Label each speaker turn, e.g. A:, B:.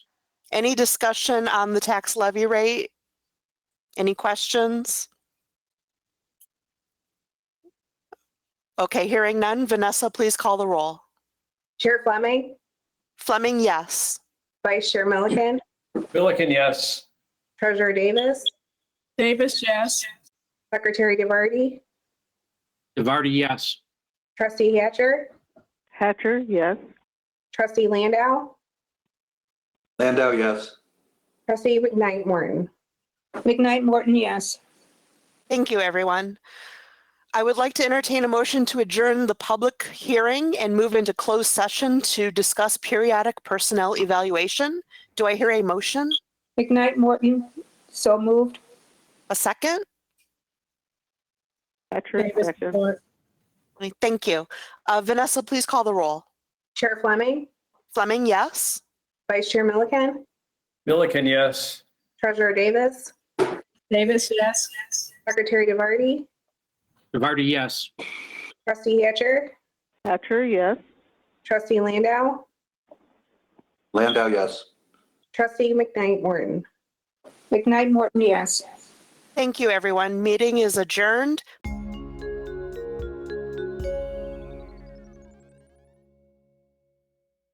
A: Any discussion on the tax levy rate? Any questions? Okay, hearing none. Vanessa, please call the roll.
B: Chair Fleming,
A: Fleming, yes.
B: Vice Chair Milliken,
C: Milliken, yes.
B: Treasurer Davis,
D: Davis, yes.
B: Secretary DeVarty,
E: DeVarty, yes.
B: Trustee Hatcher,
F: Hatcher, yes.
B: Trustee Landau,
G: Landau, yes.
B: Trustee McKnight Morton.
H: McKnight Morton, yes.
A: Thank you, everyone. I would like to entertain a motion to adjourn the public hearing and move into closed session to discuss periodic personnel evaluation. Do I hear a motion?
H: McKnight Morton, so moved.
A: A second?
F: Hatcher,
D: Davis,
F: second.
A: Thank you. Uh, Vanessa, please call the roll.
B: Chair Fleming,
A: Fleming, yes.
B: Vice Chair Milliken,
C: Milliken, yes.
B: Treasurer Davis,
D: Davis, yes.
B: Secretary DeVarty,
E: DeVarty, yes.
B: Trustee Hatcher,
F: Hatcher, yes.
B: Trustee Landau,
G: Landau, yes.
B: Trustee McKnight Morton.
H: McKnight Morton, yes.
A: Thank you, everyone. Meeting is adjourned.